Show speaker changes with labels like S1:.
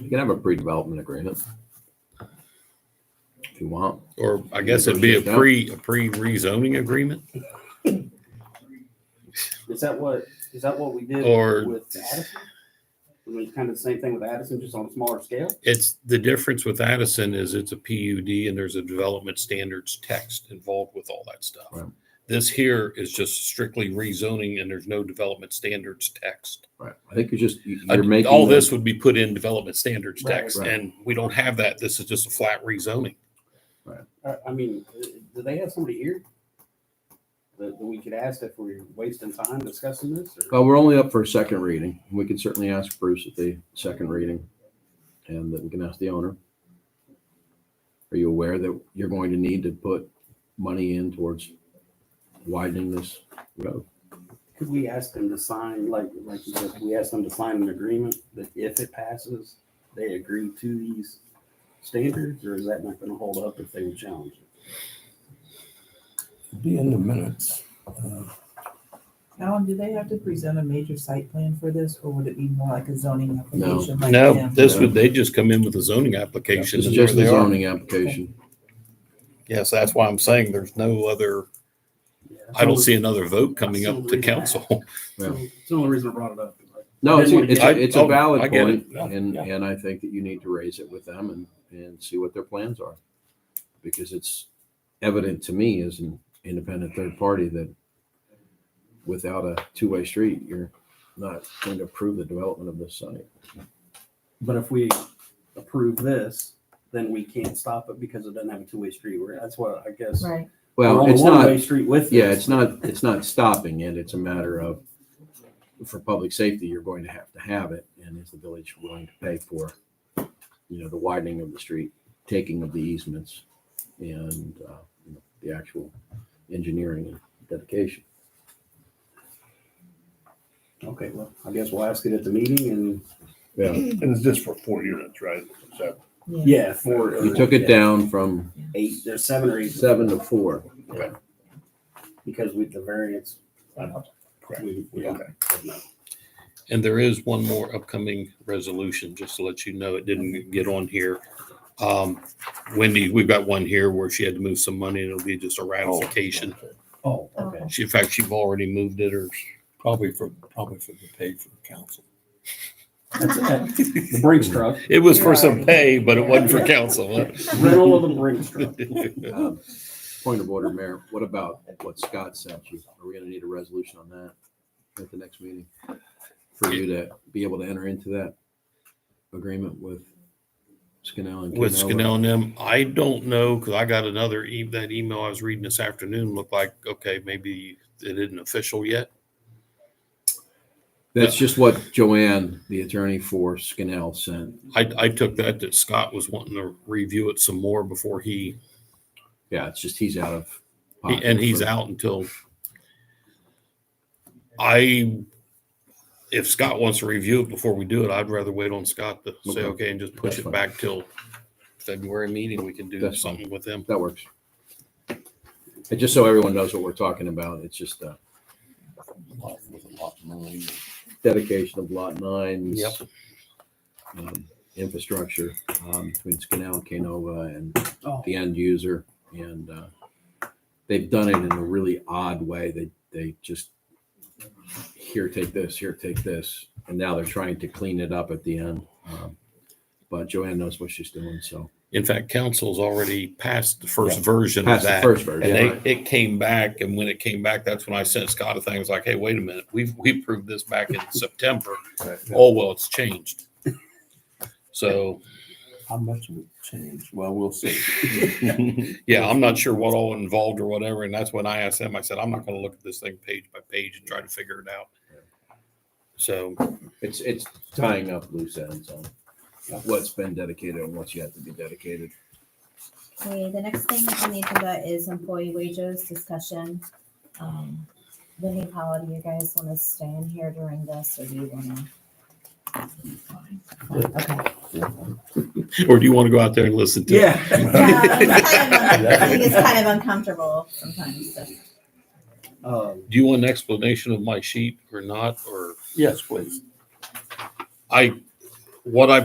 S1: You can have a pre-development agreement. If you want.
S2: Or I guess it'd be a pre, a pre rezoning agreement
S3: Is that what, is that what we did
S2: or
S3: with Addison? I mean, kind of the same thing with Addison, just on a smaller scale?
S2: It's, the difference with Addison is it's a PUD and there's a development standards text involved with all that stuff.
S1: Right.
S2: This here is just strictly rezoning and there's no development standards text.
S1: Right. I think you're just, you-
S2: I-
S1: you're making.
S2: All
S1: the-
S2: this would be put in development standards
S3: Right,
S2: text
S1: right.
S2: and we don't have that. This is just a flat rezoning.
S3: I, I mean, uh, do they have somebody here? That, that we could ask if we're wasting time discussing this or?
S1: Well, we're only up for a second reading. We can certainly ask Bruce at the second reading and then we can ask the owner. Are you aware that you're going to need to put money in towards widening this road?
S3: Could we ask them to sign, like, like you said, we ask them to sign an agreement that if it passes, they agree to these standards, or is that not gonna hold up if they would challenge it?
S4: Be in the minutes. Uh,
S5: Alan, do they have to present a major site plan for this, or would it be more like a zoning
S1: No.
S5: application? like
S2: No,
S5: them?
S2: this would, they just come in with a zoning application.
S1: It's
S2: and there
S1: just the
S2: they are.
S1: zoning application.
S2: Yes, that's why I'm saying there's no other,
S3: Yeah.
S2: I don't see another vote coming up to
S3: Absolutely.
S2: council.
S3: It's the only reason I brought it up.
S1: No, it's, it's,
S2: I-
S1: it's a
S2: oh,
S1: valid
S2: I get
S1: point,
S2: it.
S4: Yeah,
S1: and,
S4: yeah.
S1: and I think that you need to raise it with them and, and see what their plans are. Because it's evident to me as an independent third party that without a two-way street, you're not going to approve the development of this site.
S3: But if we approve this, then we can't stop it because it doesn't have a two-way street, We're that's what I guess.
S5: Right,
S3: We're
S1: Well,
S3: on a
S1: it's
S3: One-way
S1: not,
S3: street with.
S1: yeah,
S3: this.
S1: it's not, it's not stopping it, it's a matter of, for public safety, you're going to have to have it, and is the village willing to pay for, you know, the widening of the street, taking of the easements, and, uh, you know, the actual engineering and dedication.
S3: Okay, well, I guess we'll ask it at the meeting and,
S1: Yeah,
S6: And it's just for four units, right? Is that-
S5: yeah.
S3: yeah, four.
S1: you took it down from
S3: Eight, there's seven or eight.
S1: seven to four.
S3: Because with the variance. we- we don't
S6: Okay.
S3: have no.
S2: And there is one more upcoming resolution, just to let you know, it didn't get on here. Um, Wendy, we've got one here where she had to move some money and it'll be just a ratification.
S3: Oh, okay.
S2: She, in fact, she've already moved it or
S4: Probably for, probably for the pay for council.
S3: That's, that- the Brinks truck,
S2: it was for some pay, but it wasn't for council.
S3: rental of the Brinks truck.
S1: Um, Point of order, Mayor, what about what Scott sent you? Are we gonna need a resolution on that at the next meeting? For you to be able to enter into that agreement with Scannell and.
S2: With
S1: Canova?
S2: Scannell and them, I don't know, because I got another, e- that email I was reading this afternoon looked like, okay, maybe it isn't official yet.
S1: That's just what Joanne, the attorney for Scannell sent.
S2: I, I took that that Scott was wanting to review it some more before he
S1: Yeah, it's just he's out of.
S2: He-
S1: pocket
S2: And he's
S1: for-
S2: out until I, if Scott wants to review it before we do it, I'd rather wait on Scott to say,
S1: Okay.
S2: okay, and just push
S1: That's
S2: it
S1: fine.
S2: back till February meeting. We can do
S1: That's fine.
S2: something with them.
S1: That works. And just so everyone knows what we're talking about, it's just uh, a
S4: With a lot of money.
S1: dedication of lot nine.
S2: Yep.
S1: um, infrastructure um, between Scannell, Canova, and
S3: Oh.
S1: the end user. And uh, they've done it in a really odd way. They they just here take this, here take this, and now they're trying to clean it up at the end. Um, but Joanne knows what she's doing, so
S2: In fact, council's already passed the first
S4: Yeah.
S2: version of
S1: past the
S2: that.
S1: first
S2: And
S1: version.
S2: they, it came back. And when it came back, that's when I sent Scott a thing. I was like, hey, wait a minute. We've, we approved this back in September. Oh, well, it's changed. So,
S4: How much would change? Well, we'll see.
S2: Yeah, I'm not sure what all involved or whatever, and that's when I asked him, I said, I'm not gonna look at this thing page by page and try to figure it out. So,
S1: It's it's tying up loose ends on what's been dedicated and what's yet to be dedicated.
S7: Okay, the next thing on the agenda is employee wages discussion. Um, Wendy Powell, do you guys want to stay in here during this or do you want to?
S2: or do you wanna go out there and listen to? it?
S7: I think it's kind of uncomfortable sometimes, so.
S3: Um,
S2: Do you want an explanation of my sheet or not, or
S4: Yes, please.
S2: I, what I